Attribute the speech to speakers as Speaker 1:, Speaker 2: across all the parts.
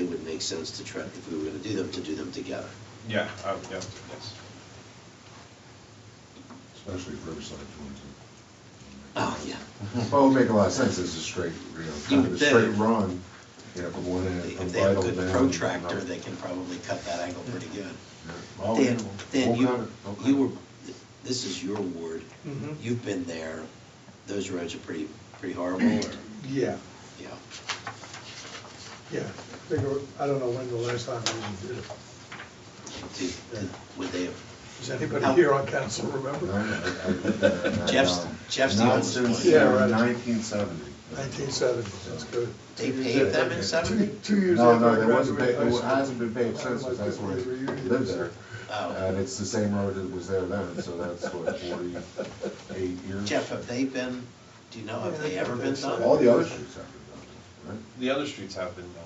Speaker 1: make sense to try, if we were gonna do them, to do them together.
Speaker 2: Yeah, oh, yeah, yes.
Speaker 3: especially if Riverside joins it.
Speaker 1: Oh, yeah.
Speaker 3: Well, it would make a lot of sense, it's a straight, you know,
Speaker 1: You
Speaker 3: kind of
Speaker 1: would
Speaker 3: a straight
Speaker 1: think.
Speaker 3: run, you know, from one end, from
Speaker 1: If they have
Speaker 3: Vital
Speaker 1: a
Speaker 3: down.
Speaker 1: good protractor, they can probably cut that angle pretty good.
Speaker 3: Yeah. Oh,
Speaker 1: Dan,
Speaker 3: yeah.
Speaker 1: Dan,
Speaker 3: Won't
Speaker 1: you,
Speaker 3: matter. Okay.
Speaker 1: you were, this is your ward.
Speaker 4: Mhm.
Speaker 3: Mm-hmm.
Speaker 1: You've been there. Those roads are pretty, pretty horrible, or,
Speaker 4: Yeah,
Speaker 1: yeah.
Speaker 4: yeah. They go, I don't know when the last time we even did it.
Speaker 1: Do- do- Would they have,
Speaker 4: Does anybody here on council
Speaker 3: No,
Speaker 4: remember?
Speaker 3: I- I- I did that, and,
Speaker 1: Jeff's-
Speaker 3: um,
Speaker 1: Jeff's the
Speaker 3: Not
Speaker 1: oldest one.
Speaker 3: since
Speaker 4: Yeah, right.
Speaker 3: nineteen seventy.
Speaker 4: Nineteen seventy, that's good.
Speaker 1: they paved them in seventy?
Speaker 4: Two- Two years
Speaker 3: No,
Speaker 4: after
Speaker 3: no,
Speaker 4: I
Speaker 3: there wasn't,
Speaker 4: graduated
Speaker 3: ba-
Speaker 4: high
Speaker 3: it
Speaker 4: school.
Speaker 3: hasn't been paved since,
Speaker 4: Otherwise,
Speaker 3: that's
Speaker 4: they
Speaker 3: when I
Speaker 4: were reunions.
Speaker 3: lived there. And
Speaker 1: Oh,
Speaker 3: it's the same road that was there then, so that's what, forty-eight years?
Speaker 1: Jeff, have they been, do you know, have they ever been
Speaker 3: All
Speaker 1: done?
Speaker 3: the other streets have been done, right?
Speaker 2: The other streets have been done.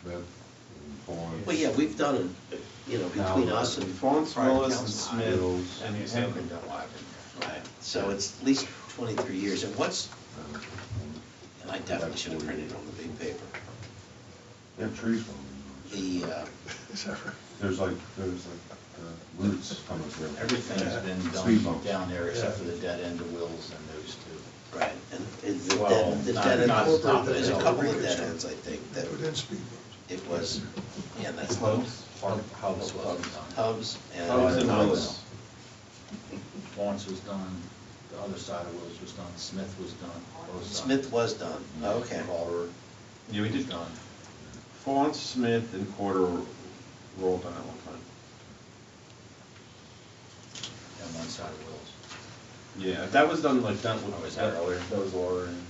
Speaker 3: Smith and Vaughn.
Speaker 1: Well, yeah, we've done, it, you know, between us and prior
Speaker 2: Willis and
Speaker 1: council.
Speaker 2: Smith and East Hampton.
Speaker 1: Right, so it's at least twenty-three years, and what's, and I definitely should have printed it on the big paper.
Speaker 3: They have trees on them.
Speaker 1: The, uh,
Speaker 4: Is that right?
Speaker 3: There's like, there's like uh, roots coming through.
Speaker 5: Everything's been
Speaker 3: Speed
Speaker 5: done
Speaker 3: bumps.
Speaker 5: down there except for the dead end of Wills and those two.
Speaker 1: right, and is the
Speaker 5: Well,
Speaker 1: dead, the
Speaker 5: not-
Speaker 1: dead
Speaker 5: not-
Speaker 1: end,
Speaker 4: not-
Speaker 1: there's a couple of dead ends, I think, that
Speaker 4: That would then speak.
Speaker 1: it was, yeah, that's.
Speaker 5: Hubs? Hubs,
Speaker 1: Hubs,
Speaker 5: Hubs.
Speaker 1: Hubs and.
Speaker 5: Hubs and
Speaker 1: Hubs.
Speaker 5: Wills. Lawrence was done, the other side of Wills was done, Smith was done, both sides.
Speaker 1: Smith was done, okay.
Speaker 5: Culver
Speaker 2: Yeah, we
Speaker 5: was
Speaker 2: did,
Speaker 5: done.
Speaker 2: Fawn, Smith, and Porter were all done at one time.
Speaker 5: And one side of Wills.
Speaker 2: Yeah, that was done like, that
Speaker 5: Oh,
Speaker 2: was,
Speaker 5: is that
Speaker 2: that
Speaker 5: earlier?
Speaker 2: that was Laura and.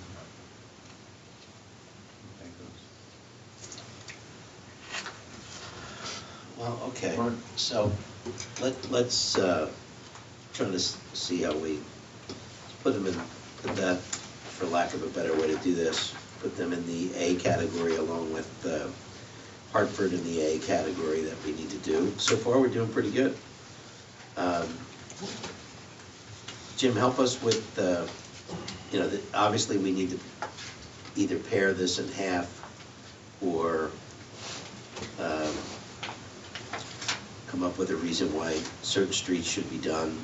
Speaker 1: Well, okay,
Speaker 3: Right.
Speaker 1: so let, let's, uh, try to s- see how we put them in, put that, for lack of a better way to do this, put them in the A category along with uh, Hartford in the A category that we need to do. So far, we're doing pretty good. Um, Jim, help us with, uh, you know, the- obviously, we need to either pare this in half or um, come up with a reason why certain streets should be done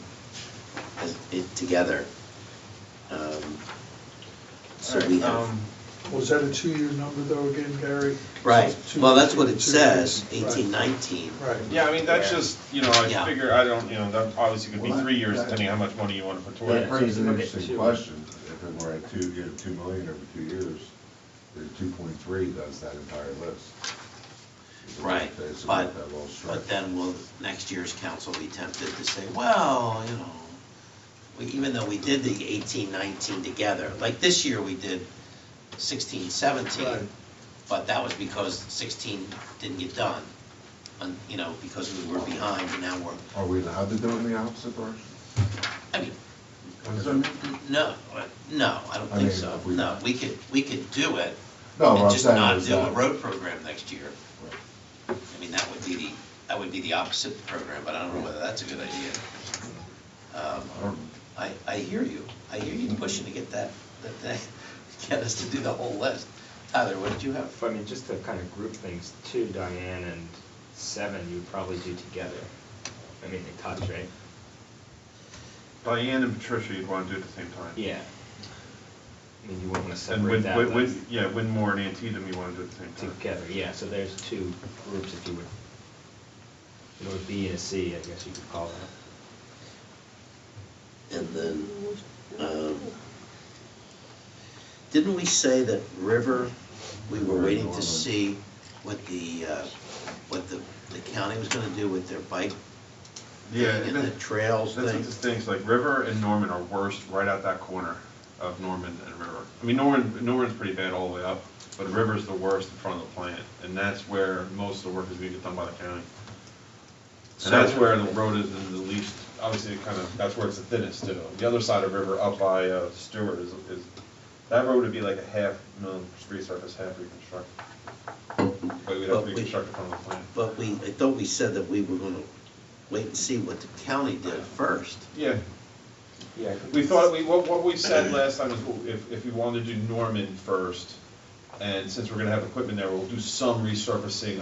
Speaker 1: as, it, together. Um, So we have,
Speaker 2: Um,
Speaker 4: Was that a two-year number though again, Gary?
Speaker 1: right,
Speaker 4: Two-
Speaker 1: well, that's what it
Speaker 4: two- two
Speaker 1: says,
Speaker 4: years. Right.
Speaker 1: eighteen, nineteen.
Speaker 4: Right.
Speaker 2: Yeah, I mean, that's
Speaker 5: Yeah.
Speaker 2: just, you know,
Speaker 1: Yeah.
Speaker 2: I figure, I don't, you know, that obviously could be
Speaker 3: Well, that-
Speaker 2: three years
Speaker 3: that-
Speaker 2: depending how much money you want to put towards
Speaker 3: That
Speaker 2: it.
Speaker 3: brings an
Speaker 5: Okay,
Speaker 3: interesting
Speaker 5: two.
Speaker 3: question, if it were at two, you know, two million over two years, the two point three does that entire list.
Speaker 1: Right,
Speaker 3: It's about
Speaker 1: but,
Speaker 3: that little stretch.
Speaker 1: but then will next year's council be tempted to say, well, you know, we- even though we did the eighteen, nineteen together, like this year we did sixteen,
Speaker 4: Right.
Speaker 1: seventeen, but that was because sixteen didn't get done, and, you know, because we were behind, and now we're,
Speaker 3: Are we allowed to do it in the opposite direction?
Speaker 1: I mean,
Speaker 3: Does that make-
Speaker 1: no, uh, no, I don't
Speaker 3: I
Speaker 1: think
Speaker 3: mean,
Speaker 1: so,
Speaker 3: if we-
Speaker 1: no, we could, we could do it,
Speaker 3: No, what
Speaker 1: and
Speaker 3: I'm
Speaker 1: just
Speaker 3: saying
Speaker 1: not
Speaker 3: is
Speaker 1: do a
Speaker 3: that-
Speaker 1: road program next year.
Speaker 3: Right.
Speaker 1: I mean, that would be the, that would be the opposite program, but I don't know whether that's a good idea. Um,
Speaker 3: I don't-
Speaker 1: I, I hear you, I hear you pushing to get that, that, that- get us to do the whole list. Tyler, what did you have?
Speaker 6: If, I mean, just to kind of group things, two, Diane, and seven, you would probably do together. I mean, they touch, right?
Speaker 2: Diane and Patricia, you'd want to do it at the same time.
Speaker 6: Yeah. I mean, you wouldn't want to
Speaker 2: And
Speaker 6: separate
Speaker 2: Win,
Speaker 6: that
Speaker 2: Win-
Speaker 6: like,
Speaker 2: Win- yeah, Winmore and Antietam, you want to do it at the same time.
Speaker 6: together, yeah, so there's two groups if you would, you know, a B and a C, I guess you could call that.
Speaker 1: And then, um, didn't we say that River, we were waiting to see what the, uh, what the, the county was gonna do with their bike
Speaker 2: Yeah.
Speaker 1: and
Speaker 2: that-
Speaker 1: the trails
Speaker 2: That's
Speaker 1: thing?
Speaker 2: what the things, like River and Norman are worst right out that corner of Norman and River. I mean, Norman, Norman's pretty bad all the way up, but River's the worst in front of the plant, and that's where most of the work is being done by the county. And that's where the road is in the least, obviously, it kind of, that's where it's the thinnest too. The other side of River up by uh, Stewart is, is, that road would be like a half mill resurface, half reconstructed. But we'd
Speaker 1: But
Speaker 2: have
Speaker 1: we-
Speaker 2: to reconstruct it from the plant.
Speaker 1: But we, I thought we said that we were gonna wait and see what the county did first.
Speaker 2: Yeah,
Speaker 6: Yeah.
Speaker 2: We thought, we, what, what we said last time is if, if we wanted to do Norman first, and since we're gonna have equipment there, we'll do some resurfacing